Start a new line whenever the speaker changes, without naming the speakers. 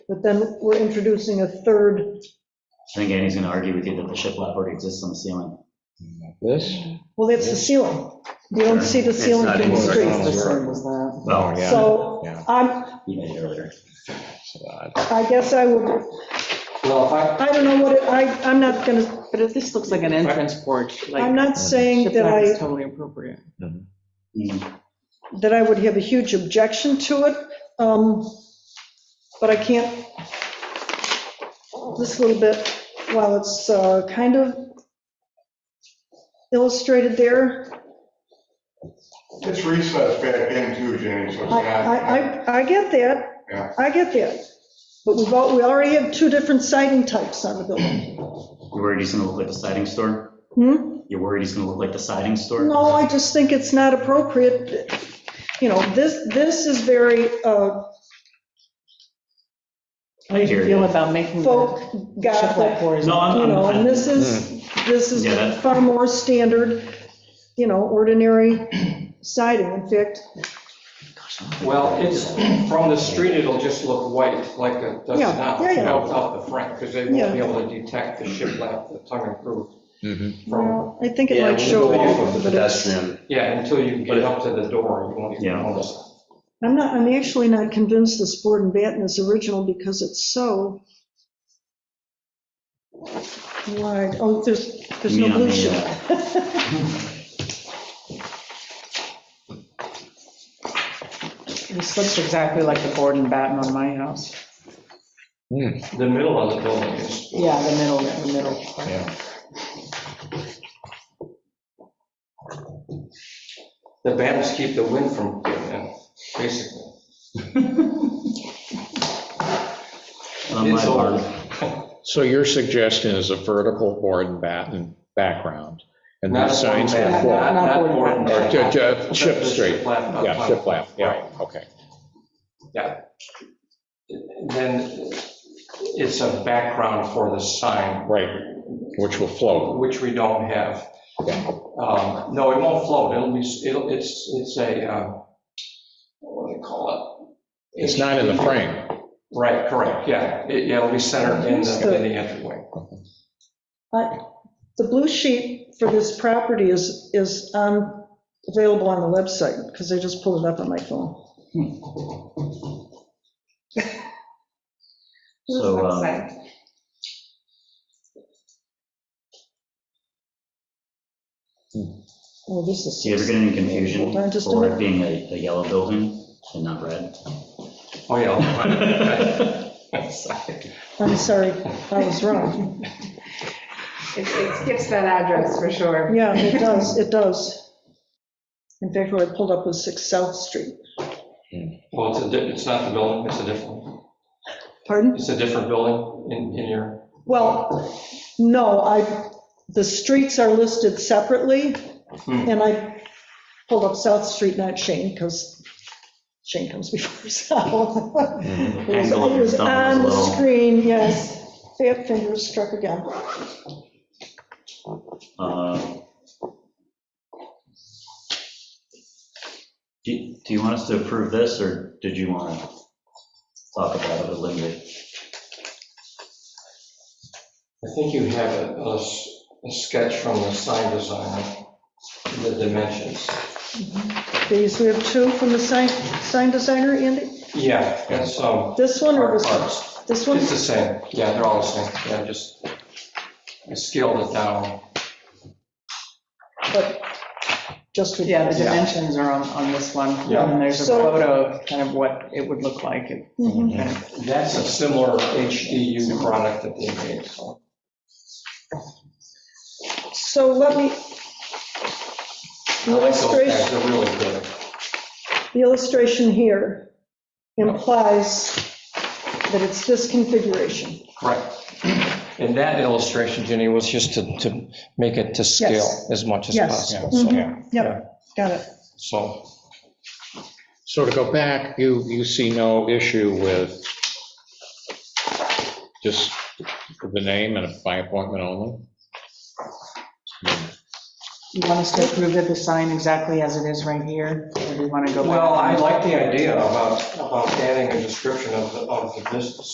But then we're introducing a third,
I think Andy's going to argue with you that the shiplap already exists on the ceiling.
This?
well, that's the ceiling. You don't see the ceiling
It's not
from the
even
street.
rectangular.
The same as that.
Well,
Oh, yeah.
So
Yeah.
I'm,
you made it earlier.
I guess I would,
Well, if I,
I don't know what, it- I, I'm not gonna,
But if this looks like an entrance porch,
I'm
like,
not saying that
shiplap
I.
is totally appropriate.
Mhm.
that I would have a huge objection to it, um, but I can't, this little bit, while it's uh, kind of illustrated there,
It's recessed back in too, Jenny, so it's
I,
not.
I, I- I get
Yeah.
that, I get that. But we've, al- we already have two different siding types on the building.
You're worried he's going to look like the siding store?
Hmm?
You're worried he's going to look like the siding store?
No, I just think it's not appropriate, you know, this, this is very uh,
How do you feel about making the
folk,
shiplap
gothic,
porch?
No, I'm,
You
I'm-
know, and
I'm,
this is, this is
Yeah, that-
far more standard, you know, ordinary siding. In fact,
well, it's, from the street, it'll just look white, like it does
Yeah,
not
yeah, yeah.
melt out the front, because they
Yeah.
won't be able to detect the shiplap, the tongue and groove
Mm-hmm.
from,
well, I think it
Yeah,
might
we'll
show
go off
off,
of the
but it's-
pedestrian.
yeah, until you get up to the door, you won't even
Yeah.
notice.
I'm not, I'm actually not convinced this board and batten is original because it's so wide. Oh, there's, there's no
Me on
blue
the,
sheet.
This looks exactly like the board and batten on my house.
Hmm,
The middle of the building is,
Yeah, the middle, the middle.
Yeah.
the battens keep the wind from getting in, basically.
on my
It's old.
part.
So your suggestion is a vertical board and batten background, and the
Not
signs
board
will
and
float.
batten,
Not
Not
board
board and
Or
batten.
ju- ju- Chip
The
straight,
shiplap up
yeah,
front.
shiplap,
Right.
yeah, okay.
Then it's a background for the sign,
Right, which will float,
which we don't have.
yeah.
Um, No, it won't float, it'll be, it'll, it's, it's a, um, what do they call it?
It's not in the frame.
Right, correct, yeah, It- yeah, it'll be centered in the, in the entryway.
I- The blue sheet for this property is, is um, available on the website because I just pulled it up on my phone.
So, um,
Oh, this is.
do you ever get any confusion
Hold on just a
for it
minute.
being a, a yellow building and not red?
Oh, yeah. I'll-
I'm sorry, I was wrong.
It- It skips that address for sure.
Yeah, it does, it does. In fact, what I pulled up was 6 South Street.
Well, it's a, di- it's not the building, it's a different,
Pardon?
it's a different building in, in your,
Well, no, I, the streets are listed separately,
Hmm.
and I pulled up South Street, not Shane, because Shane comes before South. It was-
Mm-hmm. Angle of
it
your
was
thumb is
on the
low.
screen, yes. Fat fingers struck again.
Uh, Do do you want us to approve this, or did you want to talk about it with Linda?
I think you have a, a s- a sketch from the sign designer, the dimensions.
These, we have two from the sign, sign designer, Andy?
Yeah, that's, um,
This one or
our
this one?
parts.
This one?
It's the same, yeah, they're all the same, yeah, just, I scaled it down.
but just with.
Yeah, the dimensions are on, on this one. And
Yeah.
then there's a
So-
photo of kind of what it would look like. It
Mhm.
kind of-
That's a similar HDU product that they made, so.
So let me.
I
The
like those guys,
illustration,
They're really good.
the illustration here implies that it's this configuration.
Correct. And that illustration, Jenny, was just to, to make it to scale
Yes.
as much as
Yes.
possible. so-
Mhm. Yep, got it.
So,
So to go back, you, you see no issue with just the name and by appointment only?
You want us to approve it, the sign exactly as it is right here? Or do you want to go back?
well, I like the idea about, about adding a description of, the of the business.